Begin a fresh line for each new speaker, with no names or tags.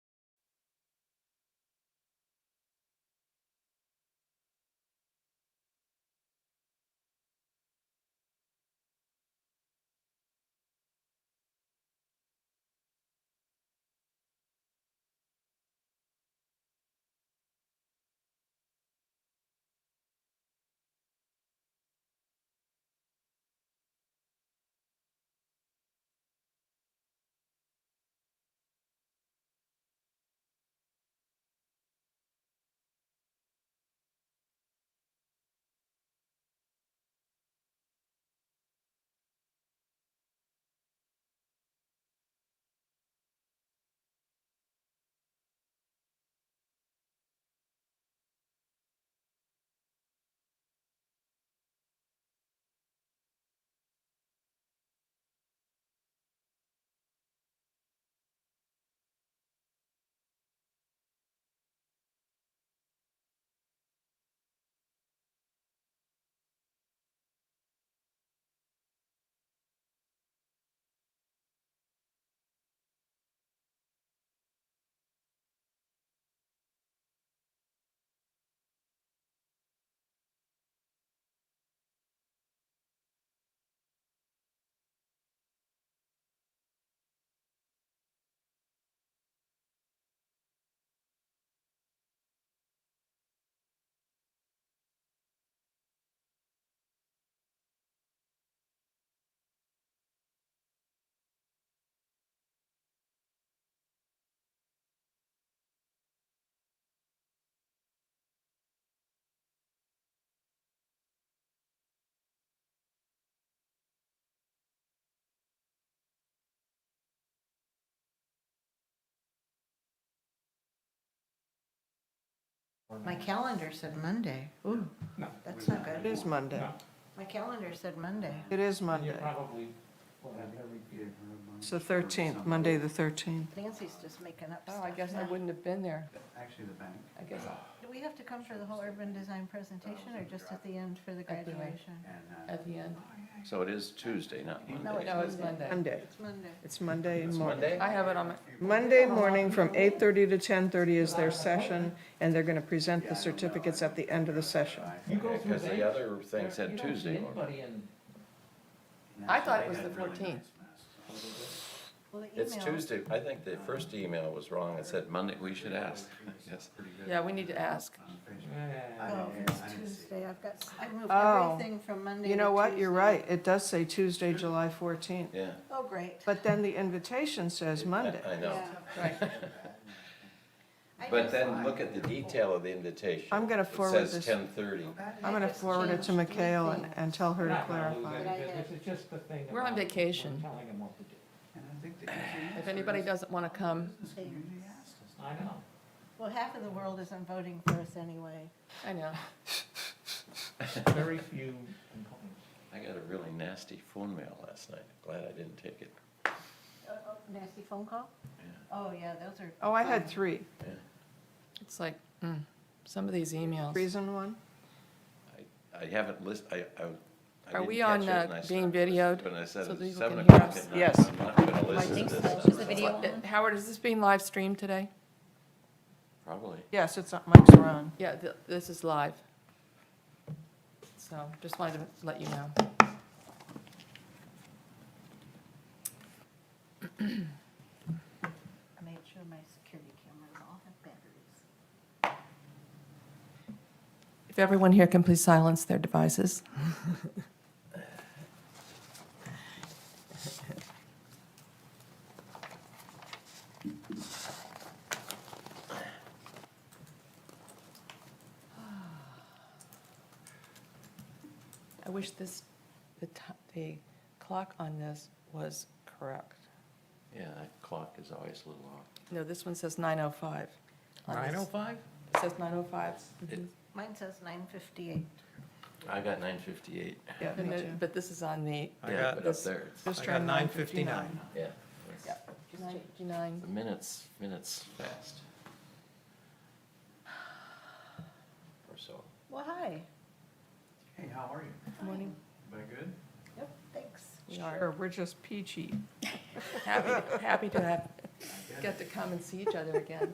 My calendar said Monday. Ooh,
No.
That's not good.
It is Monday.
No.
my calendar said Monday.
It is
And you
Monday.
probably will have every year.
It's the 13th, Monday, the 13th.
Nancy's just making up
Oh, I
stuff
guess I
now.
wouldn't have been there.
Actually, the bank.
I guess,
Do we have to come for the whole urban design presentation or just at the end for the
At the end.
graduation?
And, uh,
at the end. Oh,
So it is Tuesday, not
No,
Monday.
it's Monday.
Monday.
It's Monday.
It's Monday
It's
morning.
Monday?
I have it on my,
Monday morning from 8:30 to 10:30 is their session, and they're going to present the certificates at the end of the session.
You go through
Because the
that,
other thing
there-
said
you don't see
Tuesday.
anybody in,
and
I
actually,
thought it
they
was
had
the
really
14th.
nice masks.
Well, the
It's
email-
Tuesday. I think the first email was wrong. It said Monday, we should ask. Yes.
yeah, we need to ask.
On Facebook.
Yeah.
I
Oh,
didn't- I
it's
didn't see it.
Tuesday. I've got, I moved
Oh.
everything from Monday
You
to
know what? You're
Tuesday.
right. It does say Tuesday, July 14th.
Yeah.
Oh, great.
But then the invitation says
I-
Monday.
I know.
Yeah.
Right.
I
But
just-
then look at the detail of the invitation.
I'm gonna forward
It
this.
says ten thirty.
I'm going to forward it to Mikhail and, and tell her
We're
to
not gonna lose
clarify.
any business, it's just the thing
We're on
about
vacation.
Telling them what to do.
And I think the easy
If
answer
anybody
is
doesn't want to
the
come,
business community asked us.
I know.
Well, half of the world isn't voting for us anyway.
I know.
Very few components.
I got a really nasty phone mail last night. Glad I didn't take it.
Uh, oh, Nasty phone call?
Yeah.
Oh, yeah, those are.
Oh, I
fun.
had three.
It's like, mm, some of these emails.
Reason one?
I haven't list, I, I. I
Are
didn't
we
catch
on,
it, and
uh,
I started
being
listening
videoed
to it, And I said,
so that
it's
people
seven
can hear
o'clock
us?
at night.
Yes.
I'm not gonna listen
think
to
so.
this.
Is the
stuff."
video on?
Uh, Howard, is this being live streamed today?
Probably.
Yes, it's, uh, Mike's around.
Yeah, th- this is live. So just wanted to let you know.
I made sure my security cameras all have batteries.
If everyone here can please silence their devices. I wish this, the, ti- the clock on this was correct.
Yeah, that clock is always a little off.
No, this one says 9:05. on this.
oh five?
It says 9:05. Mhm.
Mine says nine fifty-eight.
I got nine fifty-eight.
Yeah, me
And
too.
it- But this is on the
I got it up
this-
there.
Just turned 9:59.
Yeah.
Yeah, 99.
The minutes, minutes fast. Or so.
Well, hi.
Hey, how are you?
Good morning.
Everybody good?
Yep, thanks.
We are
Sure, we're just peachy.
happy, happy to have,
I get it.
get to come and see each other again.